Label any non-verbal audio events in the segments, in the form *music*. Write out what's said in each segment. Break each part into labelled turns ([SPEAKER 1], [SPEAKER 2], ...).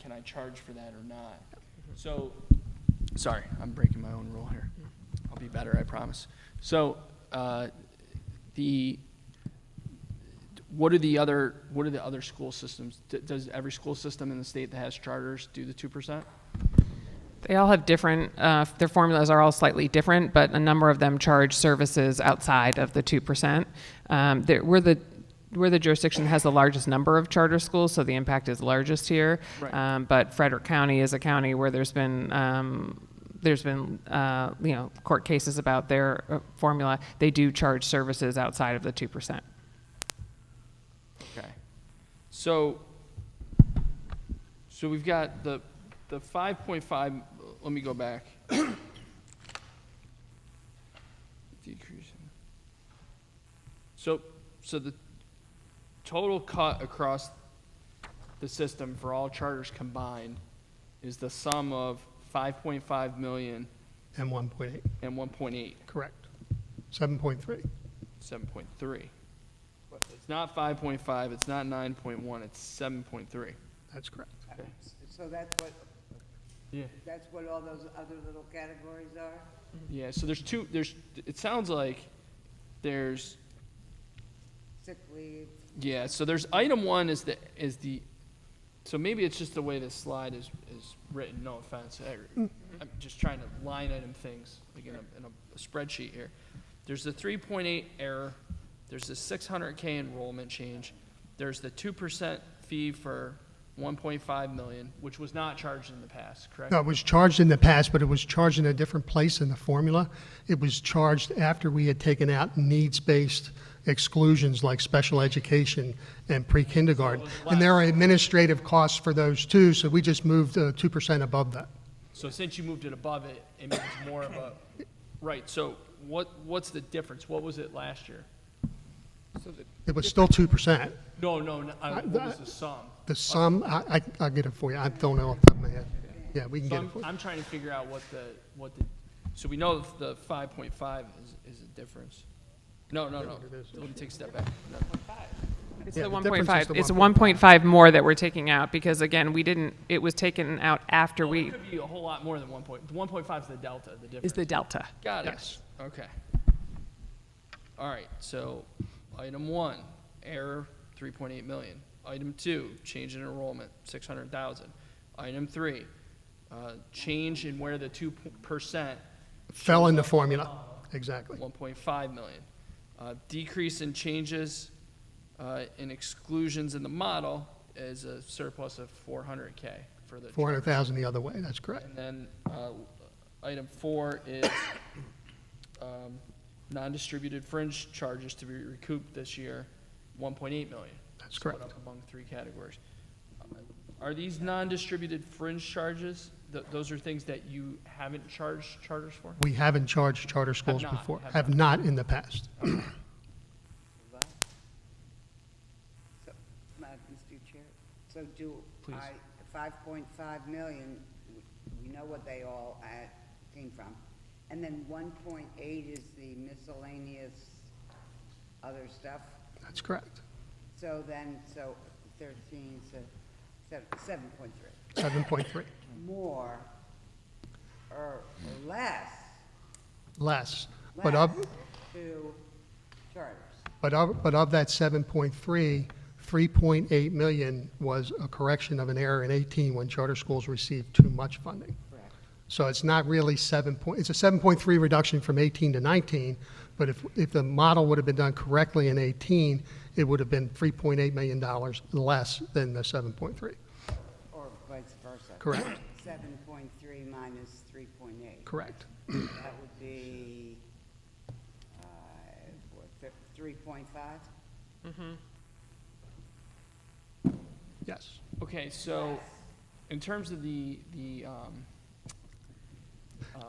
[SPEAKER 1] can I charge for that or not? So, sorry, I'm breaking my own rule here. I'll be better, I promise. So, uh, the, what are the other, what are the other school systems? D- Does every school system in the state that has charters do the two percent?
[SPEAKER 2] They all have different, uh, their formulas are all slightly different, but a number of them charge services outside of the 2%. Um, there- We're the, we're the jurisdiction that has the largest number of charter schools, so the impact is largest here.
[SPEAKER 1] Right.
[SPEAKER 2] Um, But Frederick County is a county where there's been, um, there's been, uh, you know, court cases about their uh, formula. They do charge services outside of the 2%.
[SPEAKER 1] Okay. So, so we've got the, the five point five, let me go back. *coughs* Decrease. in- So, so the total cut across the system for all charters combined is the sum of five point five million
[SPEAKER 3] and 1.8,
[SPEAKER 1] and one point eight,
[SPEAKER 3] correct. 7.3,
[SPEAKER 1] seven point three. It's not five point five, it's not nine point one, it's seven point three.
[SPEAKER 3] that's correct.
[SPEAKER 4] So that's what,
[SPEAKER 1] Yeah.
[SPEAKER 4] that's what all those other little categories are?
[SPEAKER 1] Yeah, so there's two, there's, it sounds like there's,
[SPEAKER 4] Sick leave,
[SPEAKER 1] yeah, so there's item one is the, is the, so maybe it's just the way this slide is, is written, no offense. I- I'm just trying to line item things, like in a, in a spreadsheet here. There's the three point eight error, there's the six hundred K enrollment change, there's the two percent fee for one point five million, which was not charged in the past, correct?
[SPEAKER 3] No, it was charged in the past, but it was charged in a different place in the formula. It was charged after we had taken out needs-based exclusions like special education and pre-kindergarten. And there are administrative costs for those too, so we just moved uh, 2% above that.
[SPEAKER 1] So since you moved it above it, it means more of a, right, so what, what's the difference? What was it last year?
[SPEAKER 3] It was still 2%.
[SPEAKER 1] No, no, no, I- what was the sum?
[SPEAKER 3] The sum, I, I- I'll get it for you, I don't know off the top of my head. Yeah, we can
[SPEAKER 1] So
[SPEAKER 3] get it
[SPEAKER 1] I'm,
[SPEAKER 3] for you.
[SPEAKER 1] I'm trying to figure out what the, what the, so we know the five point five is, is a difference. No, no, no, let me take a step back. No.
[SPEAKER 2] It's
[SPEAKER 3] Yeah,
[SPEAKER 2] the
[SPEAKER 3] the difference
[SPEAKER 2] 1.5,
[SPEAKER 3] is the
[SPEAKER 2] it's
[SPEAKER 3] 1.5.
[SPEAKER 2] 1.5 more that we're taking out, because again, we didn't, it was taken out after
[SPEAKER 1] Well, it
[SPEAKER 2] we,
[SPEAKER 1] could be a whole lot more than one point, one point five is the delta, the difference.
[SPEAKER 2] is the delta.
[SPEAKER 1] Got it.
[SPEAKER 3] Yes.
[SPEAKER 1] Okay. All right, so item one, error, three point eight million. Item two, change in enrollment, six hundred thousand. Item three, uh, change in where the two percent,
[SPEAKER 3] Fell in the formula, exactly.
[SPEAKER 1] one point five million. Uh, decrease in changes, uh, in exclusions in the model is a surplus of four hundred K for the.
[SPEAKER 3] 400,000 the other way, that's correct.
[SPEAKER 1] And then, uh, item four is, um, non-distributed fringe charges to be recouped this year, one point eight million.
[SPEAKER 3] That's
[SPEAKER 1] Split
[SPEAKER 3] correct.
[SPEAKER 1] up Among three categories. Are these non-distributed fringe charges, th- those are things that you haven't charged charters for?
[SPEAKER 3] We haven't charged charter schools
[SPEAKER 1] not,
[SPEAKER 3] before,
[SPEAKER 1] have
[SPEAKER 3] have not in the past.
[SPEAKER 4] so, Madam Mr. Chair, so do I, five point five million, we- we know what they all uh, came from. And then one point eight is the miscellaneous other stuff,
[SPEAKER 3] That's correct.
[SPEAKER 4] so then, so thirteen, so, seven point three.
[SPEAKER 3] 7.3,
[SPEAKER 4] more or less
[SPEAKER 3] less. But
[SPEAKER 4] less
[SPEAKER 3] of,
[SPEAKER 4] to charters.
[SPEAKER 3] but of, but of that 7.3, 3.8 million was a correction of an error in 18 when charter schools received too much funding.
[SPEAKER 4] Correct.
[SPEAKER 3] So it's not really 7 point, it's a 7.3 reduction from 18 to 19, but if, if the model would have been done correctly in 18, it would have been $3.8 million less than the 7.3.
[SPEAKER 4] Or vice versa.
[SPEAKER 3] Correct.
[SPEAKER 4] Seven point three minus three point eight.
[SPEAKER 3] Correct.
[SPEAKER 4] That would be, uh, what, three point five?
[SPEAKER 3] Yes.
[SPEAKER 1] Okay, so in terms of the, the, um, uh,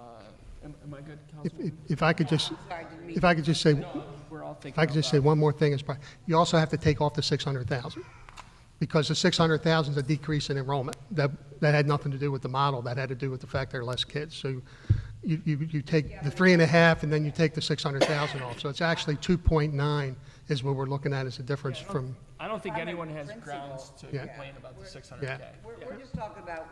[SPEAKER 1] am am I good,
[SPEAKER 3] If, if-
[SPEAKER 1] Councilwoman?
[SPEAKER 3] if I could just,
[SPEAKER 4] Sorry, didn't mean,
[SPEAKER 3] if I could just say,
[SPEAKER 1] No, we're all thinking
[SPEAKER 3] If I could just
[SPEAKER 1] about-
[SPEAKER 3] say one more thing, is probably, you also have to take off the 600,000, because the 600,000 is a decrease in enrollment. That, that had nothing to do with the model, that had to do with the fact there are less kids. So you, you, you take the three and a half and then you take the six hundred thousand off. So it's actually two point nine is what we're looking at as a difference from,
[SPEAKER 1] I don't think
[SPEAKER 4] If I'm in
[SPEAKER 1] anyone has
[SPEAKER 4] principle,
[SPEAKER 1] grounds to
[SPEAKER 4] Yeah.
[SPEAKER 1] complain about the six hundred
[SPEAKER 3] Yeah.
[SPEAKER 1] K.
[SPEAKER 4] We're, we're just talking about